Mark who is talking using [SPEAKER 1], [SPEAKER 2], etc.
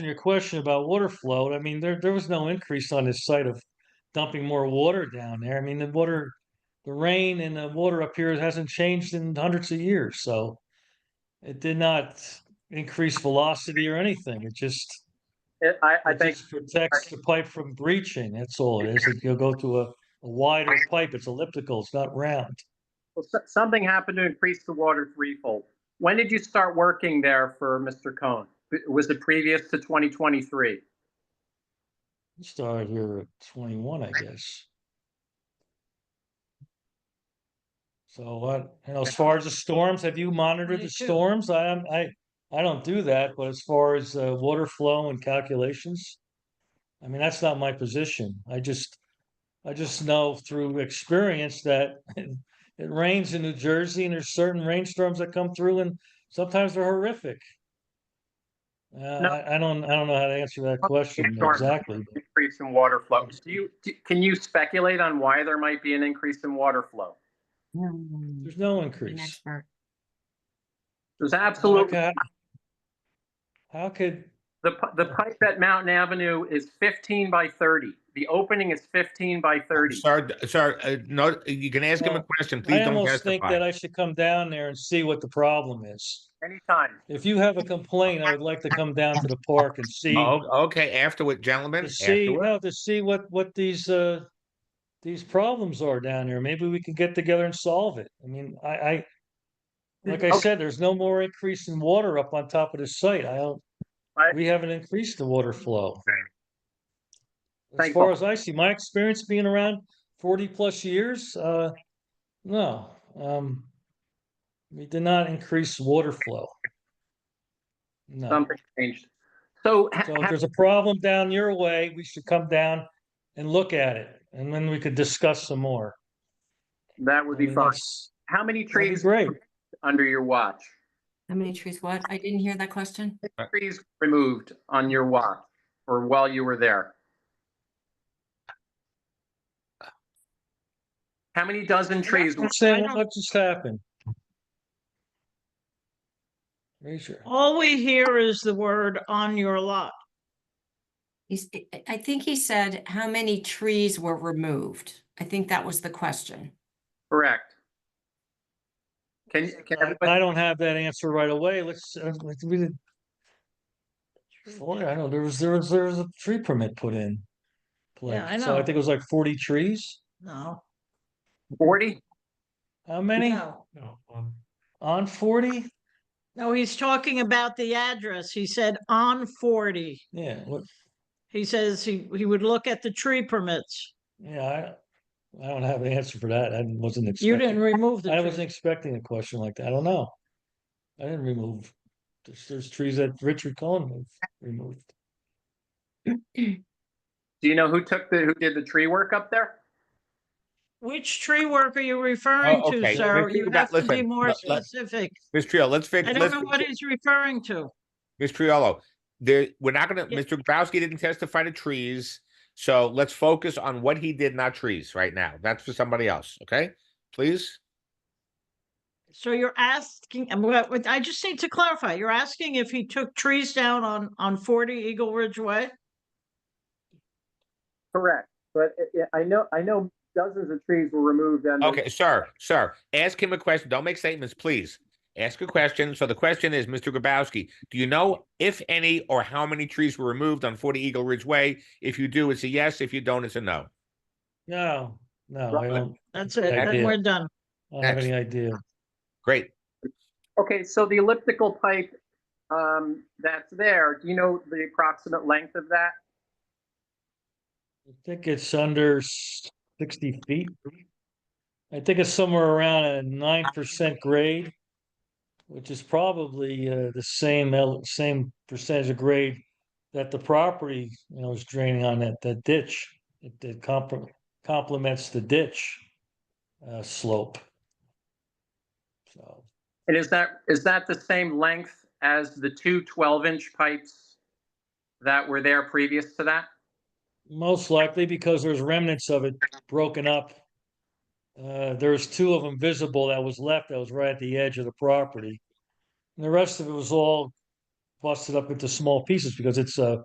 [SPEAKER 1] your question about water flow, I mean, there, there was no increase on this site of dumping more water down there. I mean, the water, the rain and the water up here hasn't changed in hundreds of years, so it did not increase velocity or anything. It just,
[SPEAKER 2] It- I, I
[SPEAKER 1] it
[SPEAKER 2] think,
[SPEAKER 1] just protects the pipe from breaching. That's all it is. If you go to a a wider pipe, it's elliptical, it's not round.
[SPEAKER 2] well, so- something happened to increase the water threefold. When did you start working there for Mr. Cohen? Was it previous to 2023?
[SPEAKER 1] It Started here at twenty-one, I guess. So what, you know, as far as the storms, have you monitored the
[SPEAKER 3] 22.
[SPEAKER 1] storms? I, am- I, I don't do that, but as far as, uh, water flow and calculations. I mean, that's not my position. I just, I just know through experience that it rains in New Jersey and there's certain rainstorms that come through and sometimes they're horrific. Uh, I, I don't, I don't know how to answer that question
[SPEAKER 2] Sure.
[SPEAKER 1] exactly. but-
[SPEAKER 2] Increase in water flow. Do you, do- can you speculate on why there might be an increase in water flow?
[SPEAKER 3] An
[SPEAKER 1] There's no increase.
[SPEAKER 3] expert.
[SPEAKER 2] There's
[SPEAKER 1] How
[SPEAKER 2] absolutely,
[SPEAKER 1] could, how could,
[SPEAKER 2] the, pi- the pipe at Mountain Avenue is 15 by 30. The opening is 15 by 30.
[SPEAKER 4] Sir, d- sir, uh, no, you can ask him a
[SPEAKER 1] Well,
[SPEAKER 4] question. Please
[SPEAKER 1] I
[SPEAKER 4] don't
[SPEAKER 1] almost think that
[SPEAKER 4] testify.
[SPEAKER 1] I should come down there and see what the problem is.
[SPEAKER 2] Anytime.
[SPEAKER 1] If you have a complaint, I would like to come down to the park and see,
[SPEAKER 4] Oh, Okay, afterward, gentlemen.
[SPEAKER 1] to see,
[SPEAKER 4] afterward.
[SPEAKER 1] no, to see what, what these, uh, these problems are down here. Maybe we can get together and solve it. I mean, I, I, like I
[SPEAKER 2] Okay.
[SPEAKER 1] said, there's no more increase in water up on top of the site. I don't,
[SPEAKER 2] I-
[SPEAKER 1] we haven't increased the water flow. As
[SPEAKER 2] Thank
[SPEAKER 1] far
[SPEAKER 2] you.
[SPEAKER 1] as I see, my experience being around forty plus years, uh, no, um. We did not increase water flow. No,
[SPEAKER 2] Something changed. So ha-
[SPEAKER 1] so if
[SPEAKER 2] ha-
[SPEAKER 1] there's a problem down your way, we should come down and look at it, and then we could discuss some more.
[SPEAKER 2] that
[SPEAKER 1] I
[SPEAKER 2] would be
[SPEAKER 1] mean,
[SPEAKER 2] fine.
[SPEAKER 1] that's-
[SPEAKER 2] How many
[SPEAKER 1] that'd be
[SPEAKER 2] trees
[SPEAKER 1] Great,
[SPEAKER 2] under your watch?
[SPEAKER 3] How many trees? What? I didn't hear that question.
[SPEAKER 2] trees removed on your watch or while you were there? How many dozen trees?
[SPEAKER 1] I'm saying, what just happened? Raise your-
[SPEAKER 5] All we hear is the word on your lot.
[SPEAKER 3] He's, I- I- I think he said how many trees were removed. I think that was the question.
[SPEAKER 2] Correct. Can, can
[SPEAKER 1] I
[SPEAKER 2] everybody,
[SPEAKER 1] I don't have that answer right away. Let's, uh, let's, we did. Boy, I know, there was, there was, there was a tree permit put in. place.
[SPEAKER 5] I
[SPEAKER 1] So I
[SPEAKER 5] know.
[SPEAKER 1] think it was like forty trees.
[SPEAKER 5] No.
[SPEAKER 2] 40?
[SPEAKER 1] How many? On forty?
[SPEAKER 5] No, he's talking about the address. He said on forty.
[SPEAKER 1] Yeah, what,
[SPEAKER 5] He says he, he would look at the tree permits.
[SPEAKER 1] yeah, I, I don't have an answer for that. I wasn't
[SPEAKER 5] You didn't
[SPEAKER 1] expecting.
[SPEAKER 5] remove the
[SPEAKER 1] I wasn't
[SPEAKER 5] tree.
[SPEAKER 1] expecting a question like that. I don't know. I didn't remove, there's, there's trees that Richard Cohen removed.
[SPEAKER 2] Do you know who took the, who did the tree work up there?
[SPEAKER 5] Which tree work are you referring
[SPEAKER 4] Oh, okay.
[SPEAKER 5] to, sir?
[SPEAKER 4] Let's do
[SPEAKER 5] You
[SPEAKER 4] that.
[SPEAKER 5] have to be
[SPEAKER 4] Listen,
[SPEAKER 5] more
[SPEAKER 4] let- let-
[SPEAKER 5] specific.
[SPEAKER 4] Ms. Triolo, let's fix,
[SPEAKER 5] I don't
[SPEAKER 4] let's,
[SPEAKER 5] know what he's referring to.
[SPEAKER 4] Ms. Triolo, there, we're not gonna,
[SPEAKER 5] Yeah.
[SPEAKER 4] Mr. Grabowski didn't testify to trees. So let's focus on what he did, not trees, right now. That's for somebody else, okay? Please?
[SPEAKER 5] So you're asking, and what- what- I just need to clarify, you're asking if he took trees down on, on forty Eagle Ridge Way?
[SPEAKER 2] Correct, but uh, I know, I know dozens of trees were removed and.
[SPEAKER 4] Okay, sir, sir, ask him a question. Don't make statements, please. Ask a question. So the question is, Mr. Grabowski, do you know if any or how many trees were removed on 40 Eagle Ridge Way? If you do, it's a yes. If you don't, it's a no.
[SPEAKER 1] No, no, I
[SPEAKER 2] Right.
[SPEAKER 1] don't,
[SPEAKER 5] That's it,
[SPEAKER 1] I
[SPEAKER 5] then
[SPEAKER 1] did.
[SPEAKER 5] we're done.
[SPEAKER 1] I don't have
[SPEAKER 4] Next.
[SPEAKER 1] any idea.
[SPEAKER 4] Great.
[SPEAKER 2] Okay, so the elliptical pipe, um, that's there, do you know the approximate length of that?
[SPEAKER 1] I think it's under s- sixty feet. I think it's somewhere around a nine percent grade, which is probably uh, the same, el- same percentage of grade that the property, you know, is draining on that, that ditch. It, it compr- complements the ditch uh, slope. So,
[SPEAKER 2] And is that, is that the same length as the two 12-inch pipes that were there previous to that?
[SPEAKER 1] most likely because there's remnants of it broken up. Uh, there's two of them visible that was left, that was right at the edge of the property. And the rest of it was all busted up into small pieces because it's a